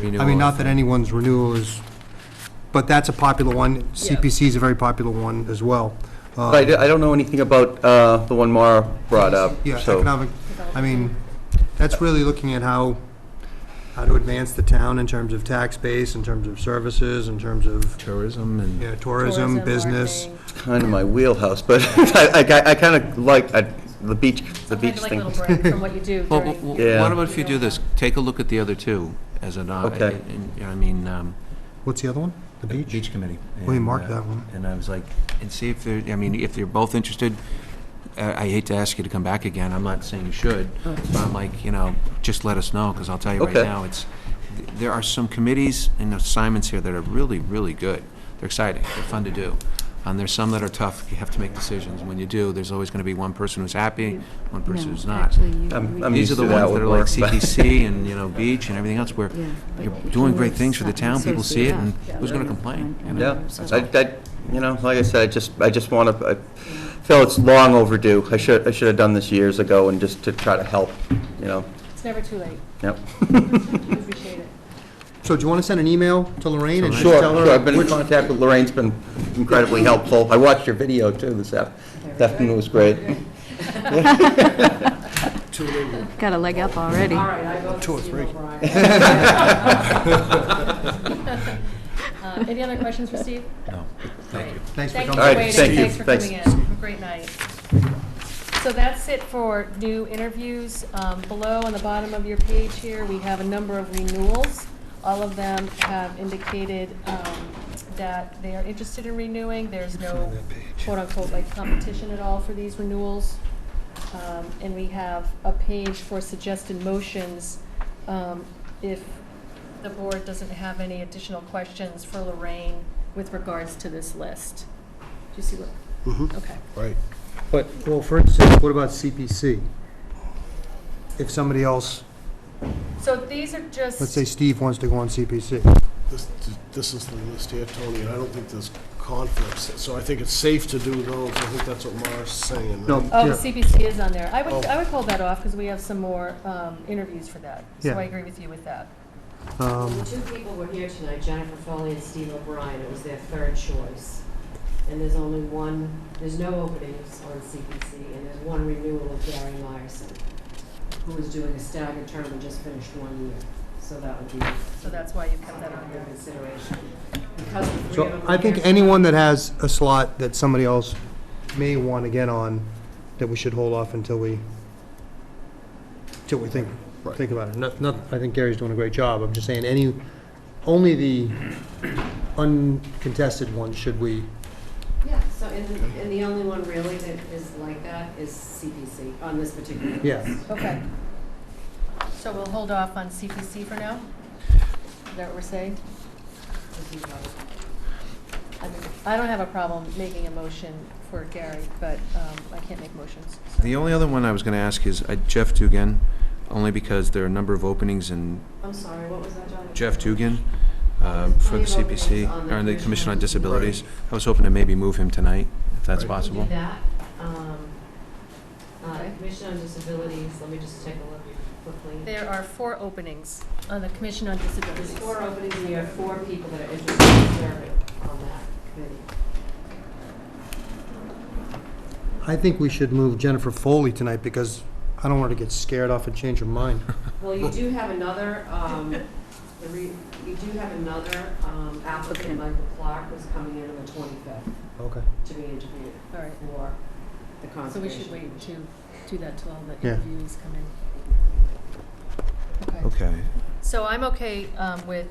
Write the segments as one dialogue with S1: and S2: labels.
S1: renewal.
S2: I mean, not that anyone's renewal is, but that's a popular one.
S3: Yeah.
S2: CPC is a very popular one as well. Uh,
S4: But I do- I don't know anything about uh, the one Mara brought up,
S2: Yeah,
S4: uh, so.
S2: economic, I mean, that's really looking at how, how to advance the town in terms of tax base, in terms of services, in terms of,
S1: Tourism and.
S2: you know, tourism, business.
S3: marketing.
S4: It's kind of my wheelhouse, but I, I, I kind of like I- the beach, the beach
S3: Sometimes you like
S4: thing.
S3: a little break from what you do
S1: Well,
S3: during.
S1: w- w-
S4: Yeah.
S1: what about if you do this, take a look at the other two as an, uh,
S4: Okay.
S1: and- and, I mean, um,
S2: What's the other one? The
S1: the
S2: beach?
S1: beach committee.
S2: We
S1: And,
S2: marked
S1: uh,
S2: that one.
S1: And I was like, and see if they're, I mean, if they're both interested, uh, I hate to ask you to come back again, I'm not saying you should, but I'm like, you know, just let us know, because I'll tell you right
S4: Okay.
S1: now, it's, th- there are some committees and assignments here that are really, really good. They're exciting, they're fun to do. And there's some that are tough, you have to make decisions. When you do, there's always going to be one person who's happy, one person who's not.
S4: I'm, I'm
S1: These are
S4: used
S1: the
S4: to that
S1: ones that
S4: with
S1: are like
S4: work. but-
S1: CPC and, you know, beach and everything else, where
S5: Yeah, but
S1: you're
S5: you
S1: doing
S5: can't
S1: great things for the town, people see it, and
S5: associate, yeah.
S1: who's going to complain? you know?
S4: Yeah,
S5: So-
S4: I, I, you know, like I said, I just, I just want to, I feel it's long overdue. I should, I should have done this years ago and just to try to help, you know,
S3: It's never too late.
S4: yep.
S3: We appreciate it.
S2: So do you want to send an email to Lorraine and just
S4: Sure,
S2: tell her?
S4: sure, I've been in
S2: which-
S4: contact with Lorraine's been incredibly helpful. I watched your video too this af- this afternoon, it was great.
S5: Got a leg up already.
S3: All right, I vote for Steve O'Brien. Uh, Any other questions for Steve?
S1: No.
S3: Thank you.
S2: Thanks for
S3: Thank
S2: coming.
S3: you for
S4: All right,
S3: waiting,
S4: thank you.
S3: thanks for coming in,
S4: Thanks.
S3: Have a great night. So that's it for new interviews. Um, Below, on the bottom of your page here, we have a number of renewals. All of them have indicated um, that they are interested in renewing. There's no quote-unquote like competition at all for these renewals. Um, And we have a page for suggested motions um, if the board doesn't have any additional questions for Lorraine with regards to this list. Do you see what?
S2: Mm-hmm.
S3: Okay.
S6: Right.
S2: But, well, for instance, what about CPC? If somebody else,
S3: So these are just.
S2: let's say Steve wants to go on CPC.
S6: This, this is the list here, Tony, and I don't think there's conflicts, so I think it's safe to do those. I think that's what Mara's saying.
S2: No,
S3: Oh, the
S2: yeah.
S3: CPC is on there. I would,
S6: Oh.
S3: I would hold that off because we have some more um, interviews for that. So
S2: Yeah.
S3: I agree with you with that.
S2: Um,
S7: The two people were here tonight, Jennifer Foley and Steve O'Brien, it was their third choice. And there's only one, there's no openings on CPC, and there's one renewal of Gary Myerson, who is doing a staggered term and just finished one year. So that would be
S3: So that's why you kept that on
S7: under
S3: there.
S7: consideration. Because the three of
S2: So
S7: them
S2: I
S7: were
S2: think
S7: here-
S2: anyone that has a slot that somebody else may want to get on, that we should hold off until we, till we think, think about it. Not, not, I think Gary's doing a great job, I'm just saying, any, only the uncontested ones should we,
S7: Yeah, so, and, the- and the only one really that is like that is CPC on this particular list.
S2: Yeah.
S3: Okay. So we'll hold off on CPC for now? Is that what we're saying?
S7: If you vote.
S3: I mean, I don't have a problem making a motion for Gary, but um, I can't make motions. so-
S1: The only other one I was going to ask is uh, Jeff Dugan, only because there are a number of openings in
S7: I'm sorry, what was that, John?
S1: Jeff Dugan um, for the
S7: Plenty of Oh, openings on
S1: CPC,
S7: the
S1: or in the Commission on
S7: Commission.
S1: Disabilities. I was hoping to maybe move him tonight, if that's
S6: Right.
S1: possible.
S7: Do that. Um, uh,
S3: Okay.
S7: Commission on Disabilities, let me just take a look quickly.
S3: There are four openings on the Commission on Disabilities.
S7: There's four openings, and you have four people that are interested in serving on that committee.
S2: I think we should move Jennifer Foley tonight, because I don't want her to get scared off and change her mind.
S7: Well, you do have another, um, the re- you do have another um, applicant, Michael Clark, who's coming in on the 25th
S2: Okay.
S7: to be interviewed
S3: All right,
S7: for the
S3: so we
S7: Conservation.
S3: should wait to do that till all the
S2: Yeah.
S3: interviews come in. Okay.
S1: Okay.
S3: So I'm okay um, with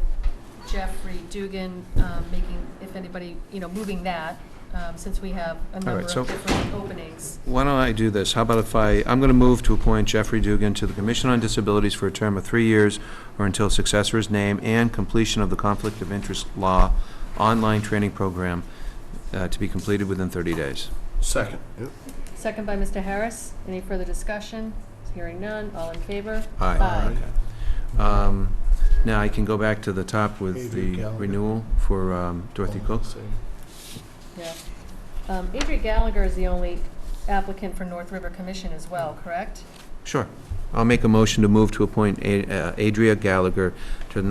S3: Jeffrey Dugan um, making, if anybody, you know, moving that, um, since we have a number of
S1: so-
S3: different openings.
S1: Why don't I do this? How about if I, I'm going to move to appoint Jeffrey Dugan to the Commission on Disabilities for a term of three years or until successor is named and completion of the Conflict of Interest Law online training program uh, to be completed within 30 days.
S6: Second. Yep.
S3: Second by Mr. Harris. Any further discussion? Hearing none. All in favor?
S1: Aye.
S3: Aye.
S1: Um, Now, I can go back to the top with
S6: Adrian
S1: the
S6: Gallagher.
S1: renewal for um, Dorothy Cook.
S6: Same.
S3: Yeah. Um, Adrian Gallagher is the only applicant for North River Commission as well, correct?
S1: Sure. I'll make a motion to move to appoint A- uh, Adria Gallagher to the